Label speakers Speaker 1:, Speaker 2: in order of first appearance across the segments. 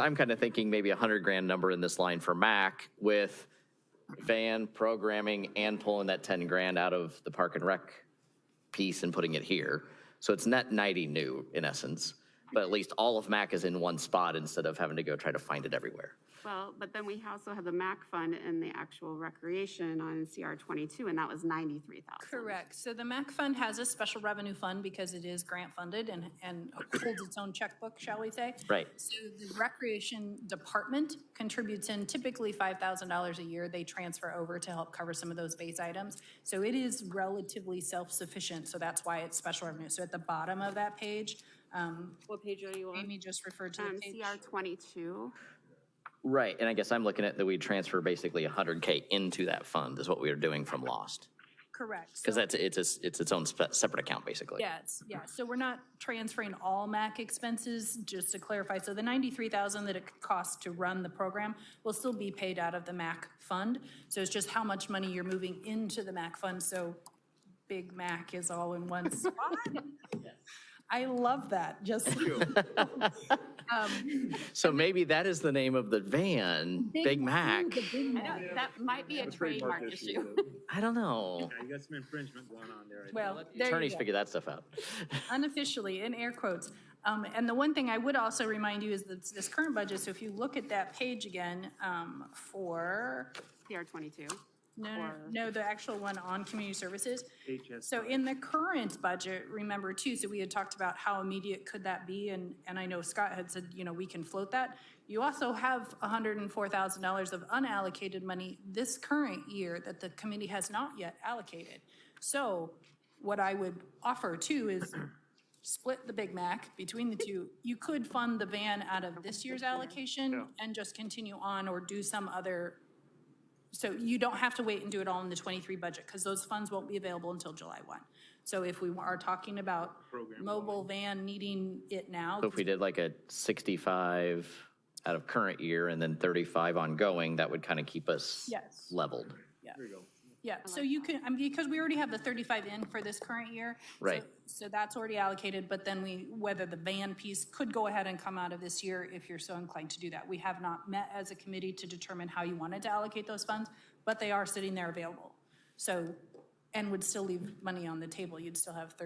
Speaker 1: I'm kind of thinking maybe a hundred grand number in this line for Mac with van programming and pulling that ten grand out of the park and rec piece and putting it here. So it's net ninety new in essence, but at least all of Mac is in one spot instead of having to go try to find it everywhere.
Speaker 2: Well, but then we also have the MAC fund and the actual recreation on CR twenty-two, and that was ninety-three thousand.
Speaker 3: Correct. So the MAC fund has a special revenue fund because it is grant funded and, and holds its own checkbook, shall we say?
Speaker 1: Right.
Speaker 3: So the recreation department contributes in typically $5,000 a year. They transfer over to help cover some of those base items. So it is relatively self-sufficient, so that's why it's special revenue. So at the bottom of that page, um,
Speaker 2: What page are you
Speaker 3: Amy just referred to
Speaker 2: Um,
Speaker 3: the page.
Speaker 2: CR twenty-two,
Speaker 1: Right, and I guess I'm looking at that we transfer basically hundred K into that fund is what we are doing from lost.
Speaker 3: Correct. So-
Speaker 1: Because that's, it's, a- it's its own spe- separate account basically.
Speaker 3: Yes, yeah, so we're not transferring all MAC expenses, just to clarify. So the 93,000 that it costs to run the program will still be paid out of the MAC fund. So it's just how much money you're moving into the MAC fund, so Big Mac is all in one spot. I love that, just. Um,
Speaker 1: So maybe that is the name of the van, Big Mac.
Speaker 3: the Big Mac.
Speaker 2: that might be a trademark issue.
Speaker 1: I don't know.
Speaker 4: Yeah, you got some infringement going on there. I think.
Speaker 3: Well, there you
Speaker 1: Attorneys
Speaker 3: go.
Speaker 1: figure that stuff out.
Speaker 3: unofficially, in air quotes. Um, And the one thing I would also remind you is that this current budget, so if you look at that page again um, for,
Speaker 2: CR twenty-two.
Speaker 3: no, no,
Speaker 2: Or-
Speaker 3: no, the actual one on community services.
Speaker 4: HS.
Speaker 3: So in the current budget, remember too, so we had talked about how immediate could that be? And, and I know Scott had said, you know, we can float that. You also have $104,000 of unallocated money this current year that the committee has not yet allocated. So what I would offer too is split the Big Mac between the two. You could fund the van out of this year's allocation and just continue on or do some other. So you don't have to wait and do it all in the 23 budget because those funds won't be available until July 1. So if we are talking about mobile van needing it now,
Speaker 1: So if we did like a 65 out of current year and then 35 ongoing, that would kind of keep us
Speaker 3: Yes.
Speaker 1: leveled.
Speaker 3: yeah, so you can, I mean, because we already have the 35 in for this current year. so-
Speaker 1: Right.
Speaker 3: So that's already allocated, but then we, whether the van piece could go ahead and come out of this year if you're so inclined to do that. We have not met as a committee to determine how you wanted to allocate those funds, but they are sitting there available. So, and would still leave money on the table. You'd still have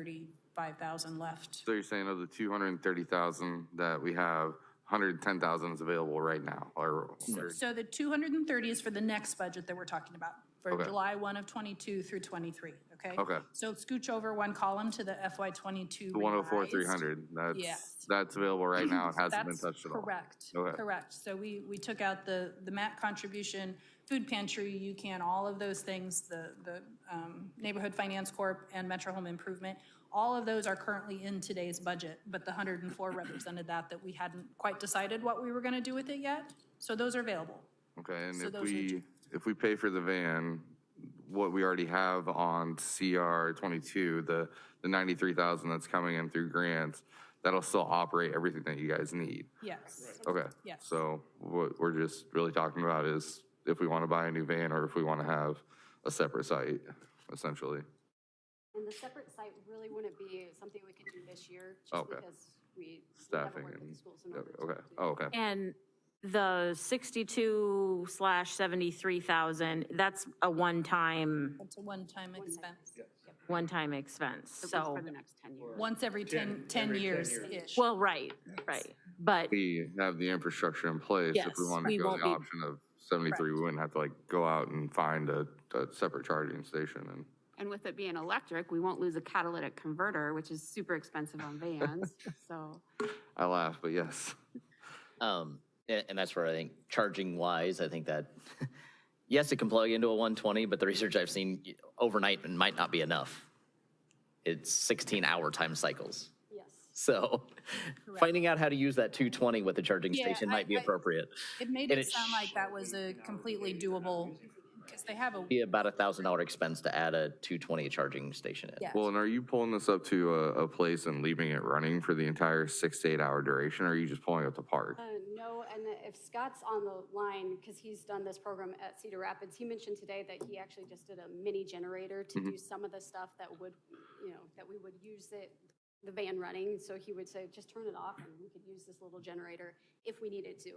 Speaker 3: 35,000 left.
Speaker 5: So you're saying of the two hundred and thirty thousand that we have, hundred and ten thousand is available right now, or, or-
Speaker 3: So the 230 is for the next budget that we're talking about, for
Speaker 5: Okay.
Speaker 3: July 1 of '22 through '23, okay?
Speaker 5: Okay.
Speaker 3: So scooch over one column to the FY '22
Speaker 5: the one oh four, three
Speaker 3: revised.
Speaker 5: hundred,
Speaker 3: Yes.
Speaker 5: that's, that's available right now, it hasn't been
Speaker 3: That's
Speaker 5: touched at all.
Speaker 3: correct,
Speaker 5: Okay.
Speaker 3: correct. So we, we took out the, the MAP contribution, food pantry, UCAN, all of those things, the, the um, Neighborhood Finance Corp. and Metro Home Improvement. All of those are currently in today's budget, but the 104 represented that, that we hadn't quite decided what we were going to do with it yet. So those are available.
Speaker 5: Okay, and
Speaker 3: So
Speaker 5: if
Speaker 3: those are
Speaker 5: we, if we pay for the van, what we already have on CR twenty-two, the, the ninety-three thousand that's coming in through grants, that'll still operate everything that you guys need.
Speaker 3: Yes.
Speaker 5: Okay.
Speaker 3: Yes.
Speaker 5: So what we're just really talking about is if we want to buy a new van or if we want to have a separate site, essentially.
Speaker 2: And the separate site really wouldn't be something we could do this year, just
Speaker 5: Okay.
Speaker 2: because we. we haven't
Speaker 5: Staffing
Speaker 2: worked with the
Speaker 5: and,
Speaker 2: schools in order to
Speaker 5: okay,
Speaker 2: do
Speaker 5: oh, okay.
Speaker 6: And the 62 slash 73,000, that's a one-time,
Speaker 3: It's a one-time expense.
Speaker 6: one-time expense, so,
Speaker 2: For the next ten years.
Speaker 3: Once every 10, 10 years-ish.
Speaker 6: well, right, right. But
Speaker 5: We have the infrastructure in place. If we
Speaker 6: Yes,
Speaker 5: wanted to
Speaker 6: we
Speaker 5: go
Speaker 6: won't
Speaker 5: the
Speaker 6: be-
Speaker 5: option of 73, we wouldn't have to like go out and find a, a separate charging station and,
Speaker 2: And with it being electric, we won't lose a catalytic converter, which is super expensive on vans, so.
Speaker 5: I laugh, but yes.
Speaker 1: Um, and, and that's where I think charging wise, I think that, yes, it can plug into a 120, but the research I've seen y- overnight it might not be enough. It's 16 hour time cycles. Yes. So finding out how to use that 220 with the charging
Speaker 3: Yeah,
Speaker 1: station
Speaker 3: I-
Speaker 1: might be
Speaker 3: I-
Speaker 1: appropriate.
Speaker 3: It made
Speaker 1: And
Speaker 3: it
Speaker 1: it
Speaker 3: sound like that was a completely doable, because they have a,
Speaker 1: Be about a thousand dollar expense to add a 220 charging station in.
Speaker 3: yeah.
Speaker 5: Well, and are you pulling this up to a, a place and leaving it running for the entire six to eight hour duration? Or are you just pulling up the park?
Speaker 7: Uh, No, and if Scott's on the line, because he's done this program at Cedar Rapids, he mentioned today that he actually just did a mini generator
Speaker 5: Mm-hmm.
Speaker 7: to do some of the stuff that would, you know, that we would use it, the van running. So he would say, just turn it off and we could use this little generator if we needed to.